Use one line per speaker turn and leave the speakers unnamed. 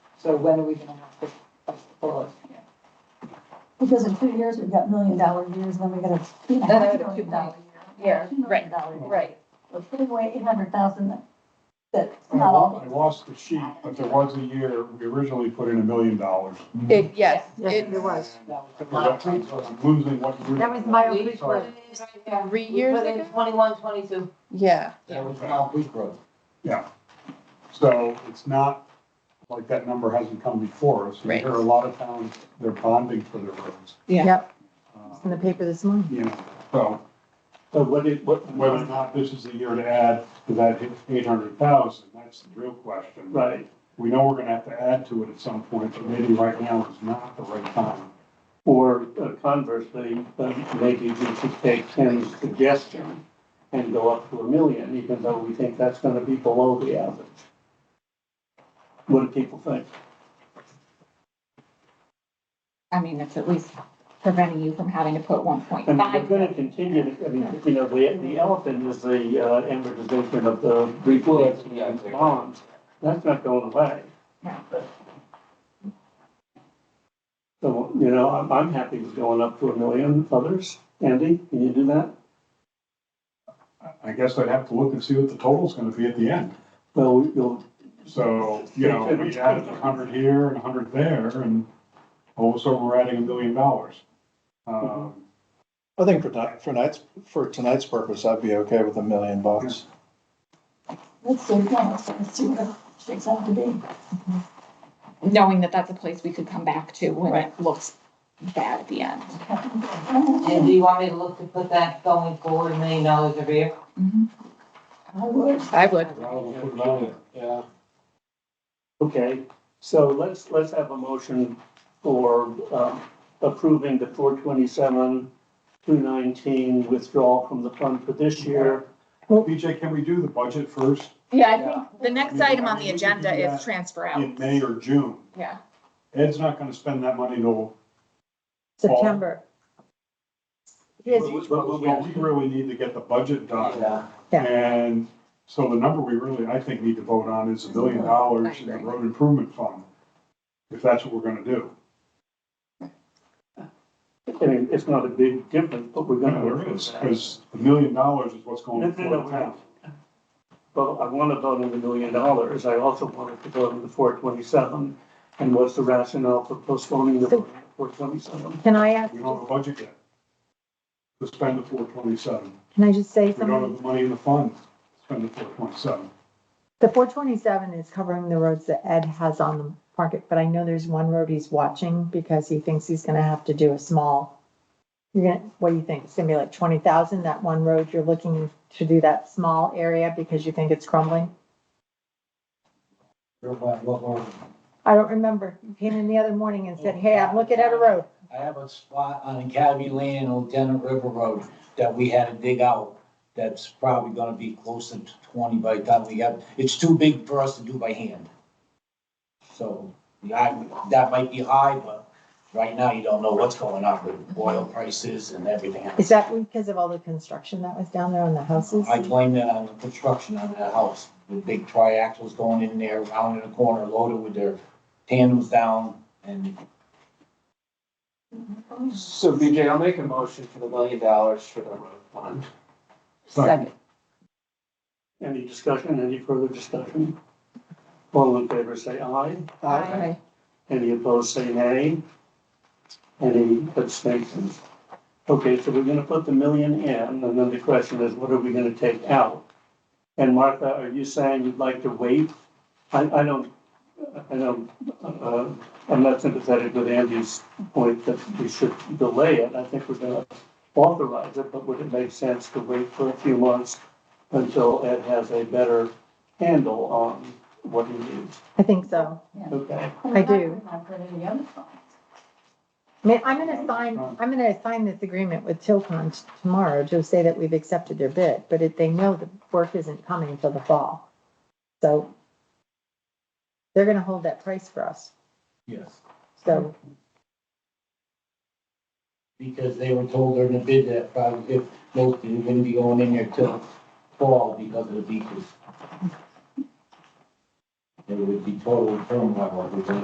So when are we gonna have to bust the bullet?
Because in two years, we've got million dollar years, then we got a two and a
Then I
half
would have two
million dollar year.
Yeah,
Two million
right,
dollar year.
Right,
We're putting away eight hundred thousand, that's
I
not
lo-
all.
I lost the sheet, but there was a year, we originally put in a million dollars.
It, yes,
Mm-hmm. Yes,
it,
it was.
that was the
I'm Losing what. you-
That was my
Sorry.
own question.
three years ago?
Twenty-one, twenty-two.
Yeah,
That was Mount Bleak Road.
Yeah. So it's not like that number hasn't come before us.
Right.
There are a lot of towns, they're bonding for their roads.
Yep,
Uh,
it's in the paper this morning.
You know, so, so what it, what, whether or not this is the year to add to that eight hundred thousand, that's the real question.
Right,
We know we're gonna have to add to it at some point, but maybe right now is not the right time.
or uh, conversely, uh, maybe we should take Tim's suggestion and go up to a million, even though we think that's gonna be below the average. What do people think?
I mean, it's at least preventing you from having to put one point
I mean, we're
five.
gonna continue, to- I mean, you know, the, the elephant is the uh, amortization of the refinancing and the bonds. That's not going away.
No.
So, you know, I'm, I'm happy with going up to a million, others, Andy, can you do that?
I- I guess I'd have to look and see what the total's gonna be at the end.
Well, you'll,
So, you know, we added a hundred here and a hundred there, and all of a sudden, we're adding a million dollars. Um,
I think for tonight, for tonight's, for tonight's purpose, I'd be okay with a million bucks.
Let's do, it. let's see what it shakes out to be.
Knowing that that's a place we could come back to when it looks bad at the end.
And do you want me to look to put that going forward, million dollars every year?
I would.
I would.
I'll put it on there.
Yeah.
okay, so let's, let's have a motion for, um, approving the four twenty-seven, two nineteen withdrawal from the fund for this year.
BJ, can we do the budget first
Yeah,
Yeah.
I think the next item on the agenda is transfer
in
out.
May or June?
Yeah.
Ed's not gonna spend that money no.
September. Yes,
But but we we really need to get the budget done.
Yeah.
Yeah.
And so the number we really, I think, need to vote on is a million dollars in the road improvement fund, if that's what we're gonna do.
I mean, it's not a big difference, but we're gonna.
There is, because a million dollars is what's
No,
going
no, no,
for the
we're not.
town.
Well, I want to vote on the million dollars. I also wanted to vote on the four twenty-seven. And what's the rationale for postponing the
So-
four twenty-seven?
Can I ask,
We don't have a budget yet. To spend the four twenty-seven.
can I just say
We don't have
something?
the money in the fund, to spend the four twenty-seven.
The four twenty-seven is covering the roads that Ed has on the market, but I know there's one road he's watching because he thinks he's gonna have to do a small. You're gonna, what do you think? It's gonna be like twenty thousand, that one road you're looking to do that small area because you think it's crumbling?
Real bad, what wrong?
I don't remember. You came in the other morning and said, hey, I'm looking at a road.
I have a spot on Academy Lane and Lieutenant River Road that we had to dig out. That's probably gonna be closer to twenty by the time we get, it's too big for us to do by hand. So, yeah, I- that might be high, but right now you don't know what's going on with oil prices and everything else.
Is that because of all the construction that was down there on the houses?
I blame that on the construction of that house, with big triaxles going in there, round in the corner, loaded with their tandems down, and
So BJ, I'll make a motion for the million dollars for the road fund.
Second.
Any discussion, any further discussion? All in favor, say aye.
Aye.
Any opposed, say nay. Any abstentions? Okay, so we're gonna put the million in, and then the question is, what are we gonna take out? And Martha, are you saying you'd like to wait? I, I don't, I don't, uh, I'm not sympathetic with Andy's point that we should delay it. I think we're gonna authorize it, but would it make sense to wait for a few months until Ed has a better handle on what he needs?
I think so.
Okay.
I do.
Not for any other song.
I mean, I'm gonna sign, I'm gonna sign this agreement with Tilcon t- tomorrow to say that we've accepted their bid, but if they know the work isn't coming till the fall. So they're gonna hold that price for us,
yes.
so.
because they were told during the bid that probably if most of are gonna be going in there till fall because of the beaches. It would be total turmoil if we